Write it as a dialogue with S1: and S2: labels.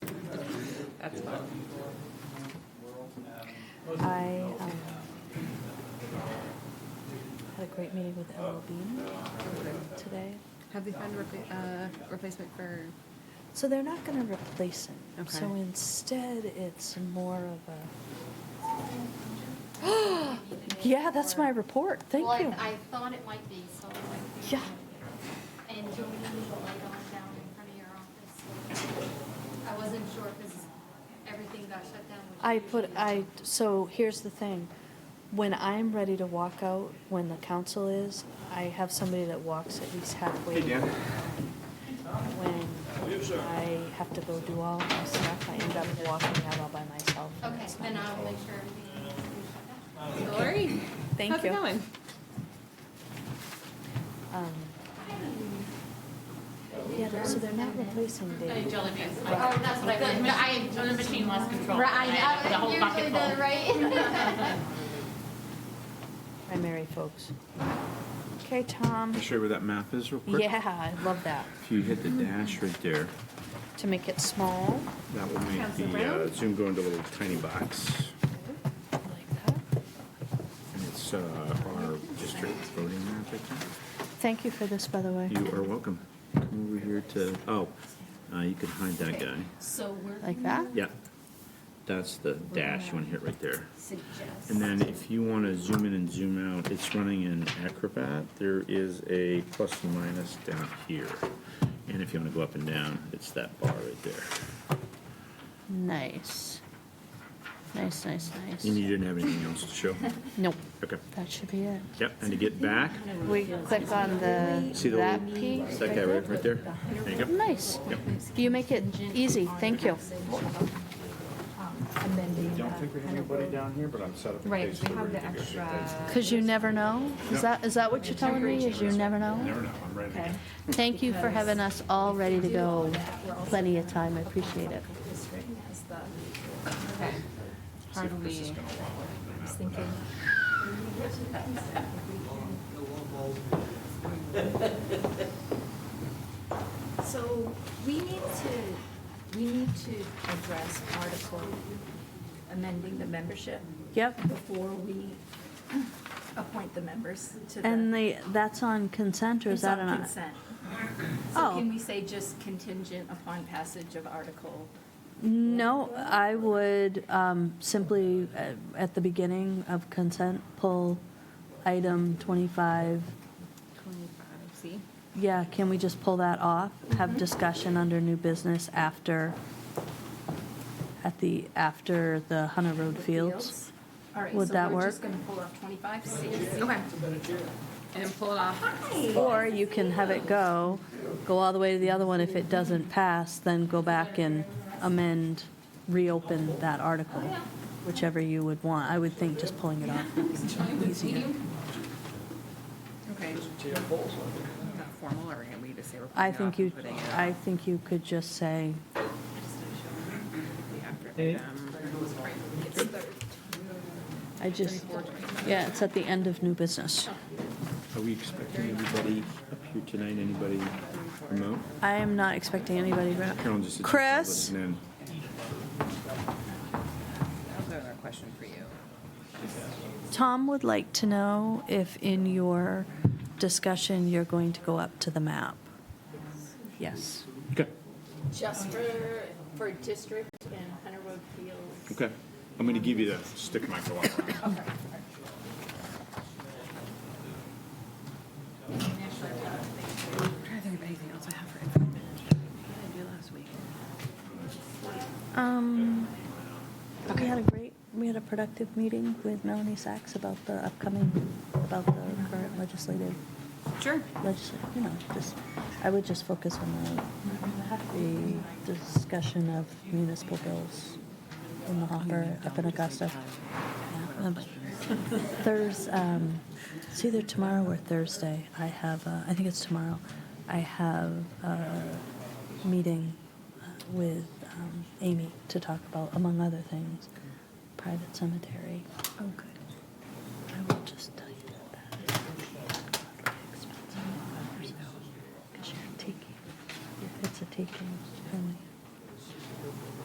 S1: That's fine.
S2: I um, had a great meeting with L. Bean today.
S1: Have they found a repla- uh, replacement for,
S2: So they're not going to replace him. So
S1: Okay.
S2: instead, it's more of a. yeah, that's my report. Thank
S3: Well, I-
S2: you.
S3: I thought it might be, so. I might-
S2: Yeah.
S3: And Jolene, the light on down in front of your office. I wasn't sure because everything got shut down. which
S2: I put,
S3: usually-
S2: I, so here's the thing. When I'm ready to walk out, when the council is, I have somebody that walks at least halfway. When I have to go do all my stuff, I end up walking out all by myself. and
S3: Okay,
S2: it's not
S3: then
S2: my
S3: I'll
S2: fault.
S3: make sure everything is shut down.
S1: Lori?
S2: Thank
S1: How's it
S2: you.
S1: going?
S2: Um, Yeah, they're- so they're not replacing Dave.
S3: Oh, that's what I meant. but I.
S4: The machine lost control.
S3: Right,
S4: I had The
S3: I,
S4: whole
S3: usually
S4: bucket full.
S3: the right.
S2: Primary folks. Okay, Tom.
S5: Can I show you where that map is real quick?
S2: Yeah, I love that.
S5: If you hit the dash right there,
S2: To make it small,
S5: that will make
S1: Council
S5: the
S1: Brown?
S5: uh, Zoom go into a little tiny box.
S2: like that.
S5: And it's uh, our district voting map, I
S2: Thank you for this, by the way.
S5: think. You are welcome. Come over here to, oh, uh, you can hide that guy.
S4: So we're.
S2: Like that?
S5: Yeah. That's the dash, you want to hit right there.
S4: Suggest.
S5: And then if you want to zoom in and zoom out, it's running in Acrobat. There is a plus and minus down here. And if you want to go up and down, it's that bar right there.
S2: Nice. Nice, nice,
S5: And
S2: nice.
S5: you didn't have anything else to show?
S2: Nope,
S5: Okay.
S2: that should be it.
S5: Yep, and to get back,
S2: We click on
S5: See
S2: the,
S5: the
S2: that
S5: little-
S2: piece?
S5: that guy right, right there? There you go.
S2: Nice. You make it easy, thank you.
S5: I don't think we have anybody down here, but I'm set up.
S1: Right, we have the extra.
S2: Because you never know? Is that, is that what you're telling me, is you never know?
S5: Never know, I'm ready to go.
S2: Okay. Thank you for having us all ready to go. Plenty of time, I appreciate it.
S1: Okay. How do we? I was thinking.
S6: So we need to, we need to address article amending the membership
S2: Yep,
S6: before we appoint the members to the.
S2: and the, that's on consent, or is
S6: It's
S2: that
S6: on
S2: on?
S6: consent.
S2: Oh.
S6: So can we say just contingent upon passage of article?
S2: No, I would um, simply, uh, at the beginning of consent, pull item 25.
S1: Twenty-five, see?
S2: Yeah, can we just pull that off? Have discussion under new business after, at the, after the Hunter Road
S6: with
S2: Fields?
S6: All right,
S2: Would
S6: so
S2: that
S6: we're just
S2: work?
S6: gonna pull up twenty-five C.
S1: Okay. And then pull it off.
S2: Or you can have it go, go all the way to the other one. If it doesn't pass, then go back and amend, reopen that article, whichever you would want. I would think just pulling it off.
S1: Okay. Not formal, or are we just say we're putting
S2: I
S1: it
S2: think
S1: off and
S2: you,
S1: putting it
S2: I think you could just say,
S1: after them?
S2: I just, yeah, it's at the end of new business.
S5: Are we expecting anybody up here tonight, anybody remote?
S2: I am not expecting anybody. right-
S5: Carol just. sits there
S2: Chris,
S5: listening
S1: I have another question for you.
S2: Tom would like to know if in your discussion, you're going to go up to the map. Yes.
S5: in. Okay,
S6: Just for, for district and Hunter Road Fields.
S5: okay. I'm going to give you the stick microphone.
S1: I'm trying to think of anything else I have for info. What did I do last week?
S2: Um, we had a great, we had a productive meeting with Melanie Sachs about the upcoming, about the current legislative,
S1: Sure.
S2: legisl you know, just, I would just focus on the, the discussion of municipal bills in the hopper up in Augusta. Yeah, um, Thurs, um, it's either tomorrow or Thursday. I have, uh, I think it's tomorrow. I have a meeting uh, with um, Amy to talk about, among other things, private cemetery. Oh, good. I will just tell you that that is expensive. Because you're taking, it's a taking, and